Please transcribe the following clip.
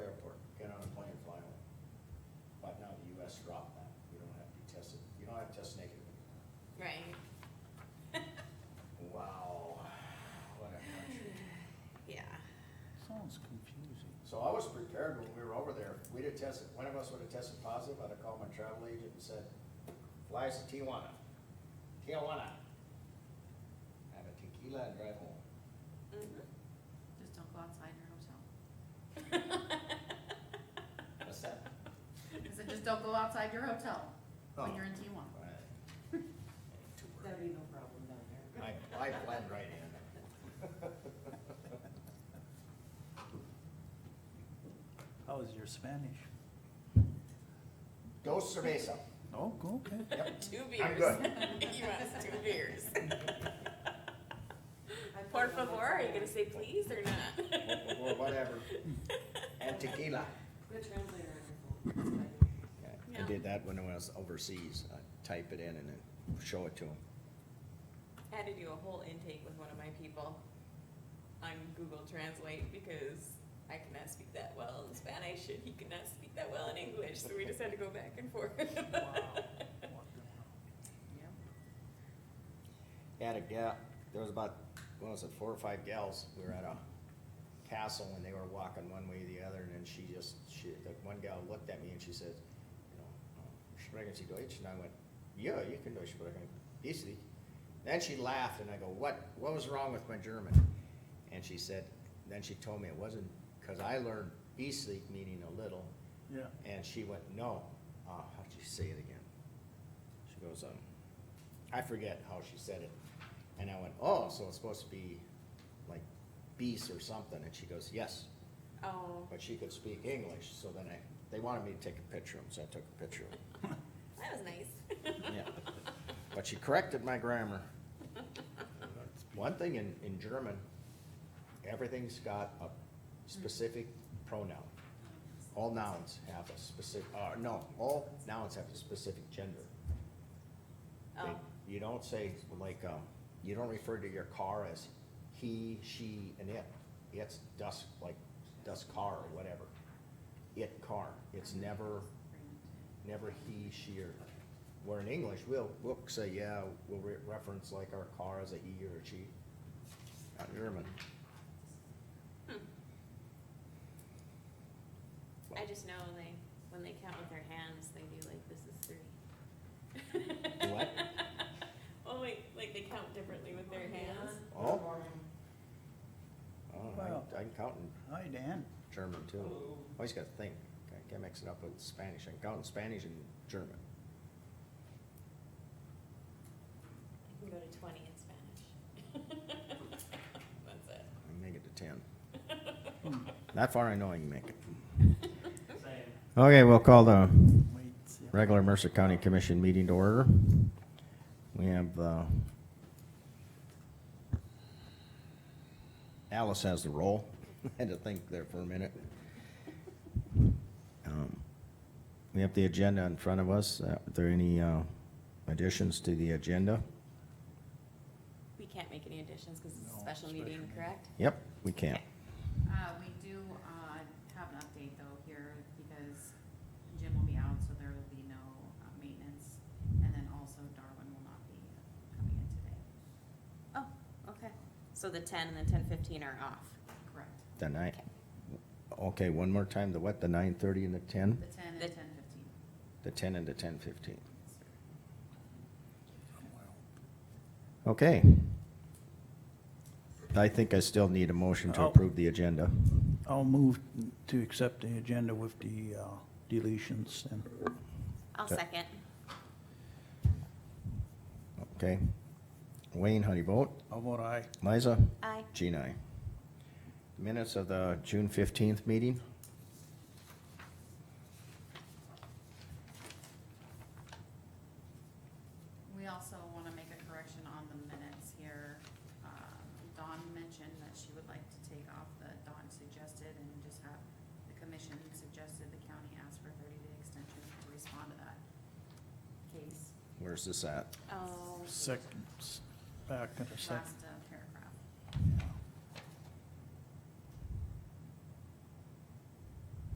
Aaron, when we were over there, we'd have tested, one of us would have tested positive, I'd have called my travel agent and said, fly us to Tijuana, Tijuana. Have a tequila and drive home. Mm-hmm. Just don't go outside your hotel. What's that? I said, just don't go outside your hotel Oh. when you're in Tijuana. Right. Too That'd worried. be no problem down there. I, I blend right in. How Oh, is your Spanish? Dos cerveza. Oh, okay. Yep. Two I'm beers. good. He wants two beers. I put Por one favor, are you that's- gonna say please or not? Or whatever. And tequila. Good translator on your phone. It's fine. I Yeah. did that when I was overseas. I type it in and then show it to them. Had to do a whole intake with one of my people on Google Translate because I could not speak that well in Spanish and he could not speak that well in English, so we just had to go back and forth. Had a gal, there was about, what was it, four or five gals. We were at a castle and they were walking one way or the other and then she just, she, that one gal looked at me and she says, you know, "Oh, sprechen Sie Deutsch? And I went, yeah, you can Deutsch sprechen, easily. Then she laughed and I go, what, what was wrong with my German? And she said, then she told me it wasn't, cause I learned easily meaning a little Yeah. And she went, no. Uh, how'd you say it again? She goes, um, I forget how she said it. And I went, oh, so it's supposed to be like beast or something. And she goes, yes. Oh, But she could speak English. So then I, they wanted me to take a picture of them, so I took a picture of them. that was nice. Yeah. But she corrected my grammar. One thing in, in German, everything's got a specific pronoun. All nouns have a specific, uh, no, all nouns have a specific gender. They- Oh, You don't say, like, um, you don't refer to your car as he, she, and it. It's dust, like, dust car or whatever. It car, it's never, never he, she, or, where in English, we'll, we'll say, yeah, we'll re- reference like our car as a he or a she. Not in German. Hmm. I just know they, when they count with their hands, they do like, this is three. What? Oh, wait, like they count differently with their hands. Oh. Good morning. Oh, Wow. I, I can count in Hi, Dan. German too. Always gotta think, I can't mix it up with Spanish, I can count in Spanish and German. I can go to twenty in Spanish. That's it. I make it to ten. Hmm, That far I know I can make it. Same. Okay, we'll call the Wait, yeah. regular Mercer County Commission meeting to order. We have, uh, Alice has the roll. Had to think there for a minute. Um, We have the agenda in front of us. Are there any, uh, additions to the agenda? We can't make any additions because it's a No, special special meeting, meeting. correct? Yep, we can't. Uh, we do, uh, have an update though here because Jim will be out, so there will be no uh, maintenance. And then also Darwin will not be coming in today. Oh, okay. So the ten and the ten fifteen are off. Correct. The nine, okay, one more time, the what, the nine thirty and the ten? The ten and The- ten fifteen. The ten and the ten fifteen. Okay. I think I still need a motion to Oh. approve the agenda. I'll move to accept the agenda with the uh, deletions and I'll Okay. second. Okay. Wayne, how do you vote? I'll vote aye. Liza? Aye. Jean, aye. Minutes of the June fifteenth meeting? We also want to make a correction on the minutes here. Um, Dawn mentioned that she would like to take off the Dawn suggested and just have the commission suggested the county ask for a thirty-day extension to respond to that case. Where's this at? Oh, Second, back in a second. Last uh,